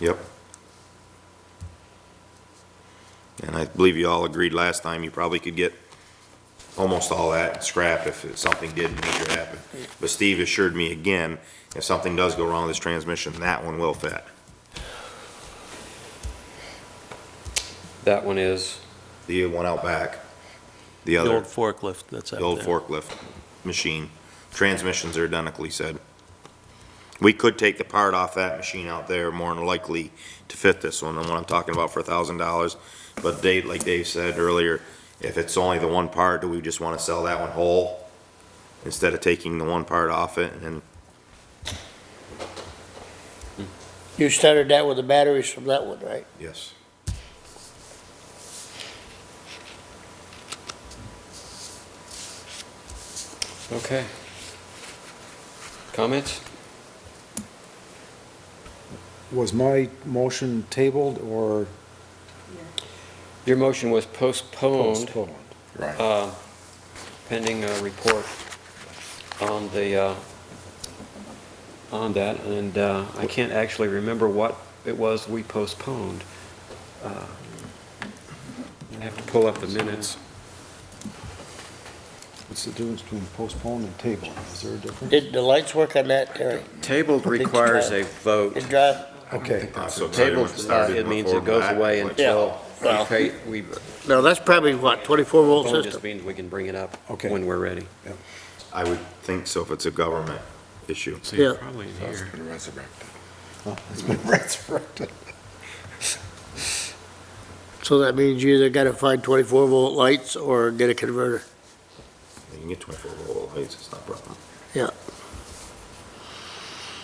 Yep. And I believe you all agreed last time, you probably could get almost all that scrapped if something did need to happen. But Steve assured me again, if something does go wrong with this transmission, that one will fit. That one is, The one out back, the The other, old forklift that's out the there. old forklift machine. Transmissions are identical, he said. We could take the part off that machine out there more than likely to fit this one, the one I'm talking about for a thousand dollars. But Dave, like Dave said earlier, if it's only the one part, do we just wanna sell that one whole? Instead of taking the one part off it and then You started that with the batteries from that one, right? yes. okay. Comments? Was my motion tabled or Your motion was postponed postponed? Right. uh, pending a report on the, uh, on that, and uh, I can't actually remember what it was we postponed. Uh, I have to pull up the minutes. What's the difference between postponed and tabled? Is there a difference? Did the lights work on that, Terry? Tabled requires a vote. It drive, Okay, Uh, Uh, So Tabled, everyone started it means before it goes that, away which- until we well- pay, we, no, that's probably what, twenty-four volt phone just system? means we can bring it up Okay. when we're ready. I would think so if it's a government issue. Yeah, it's been resurrected. so that means you either gotta find twenty-four volt lights or get a converter. You can get twenty-four volt lights, it's not a problem. Yeah.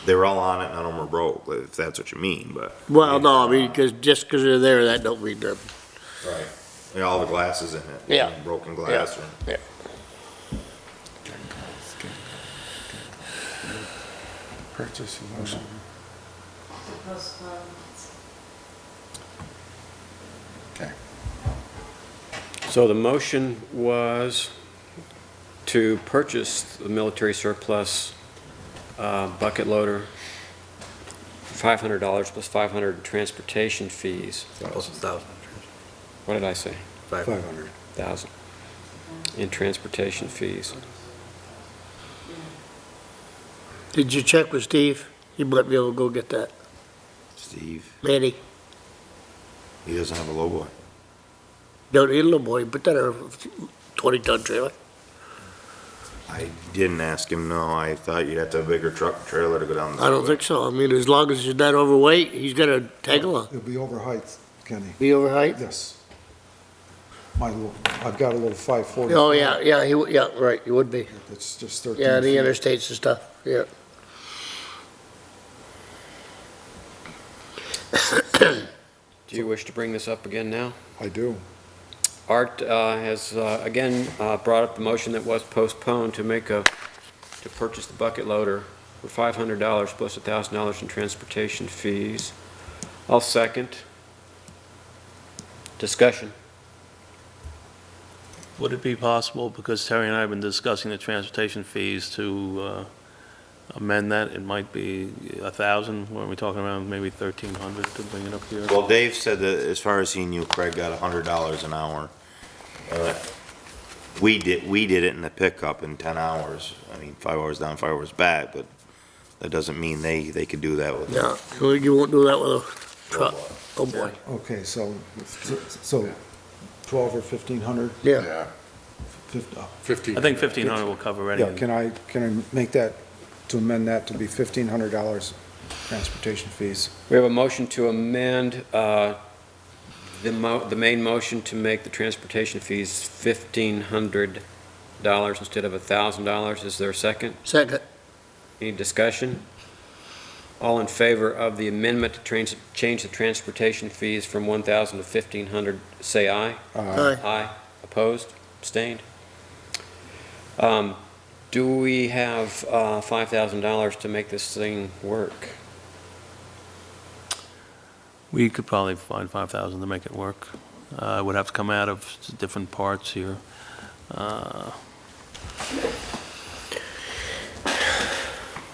They were all on it, none of them were broke, if that's what you mean, but. Well, no, I mean, cause just cause they're there, that don't mean nothing. Right. Yeah, all the glasses in it. Yeah. Broken glass or. Yeah. Purchase motion. So the motion was to purchase the military surplus uh, bucket loader, $500 plus 500 transportation fees. What did I say? Five hundred. 1,000 in transportation fees. Did you check with Steve? He might be able to go get that. Steve, Manny, he doesn't have a logo. don't need a little boy, put that in a twenty-ton trailer. I didn't ask him, no, I thought you'd have to have a bigger truck and trailer to go down. the- I don't think so. I mean, as long as he's not overweight, he's gonna tag along. It'll be over height, Kenny. Be overweight? Yes. My little, I've got a little five forty. Oh, yeah, yeah, he, would- yeah, right, he would be. It's just thirteen. Yeah, the feet. interstates and stuff, yeah. Do you wish to bring this up again now? I do. Art uh, has, uh, again, uh, brought up the motion that was postponed to make a, to purchase the bucket loader for $500 plus $1,000 in transportation fees. I'll second. Discussion. Would it be possible, because Terry and I have been discussing the transportation fees, to uh, amend that? It might be a thousand, weren't we talking around maybe thirteen hundred to bring it up here? Well, Dave said that as far as he knew, Craig got a hundred dollars an hour. Uh, We did, we did it in the pickup in ten hours. I mean, five hours down, five hours back, but that doesn't mean they, they could do that with. No, you- you won't do that with a truck. Oh, boy. Okay, so, so twelve or fifteen hundred? uh, Yeah, I think fifteen hundred will cover Yeah, anything. can I, can I make that, to amend that to be fifteen hundred dollars transportation fees? We have a motion to amend uh, the mo, the main motion to make the transportation fees $1,500 instead of $1,000. Is there a second? second, Any discussion? All in favor of the amendment to trans- change the transportation fees from 1,000 to 1,500, say aye. Uh, aye. Aye. Opposed? Abstained? Um, Do we have uh, $5,000 to make this thing work? We could probably find five thousand to make it work. Uh, It would have to come out of s- different parts here. Uh,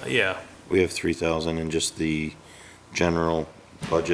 Yeah, We have three thousand in just the general budget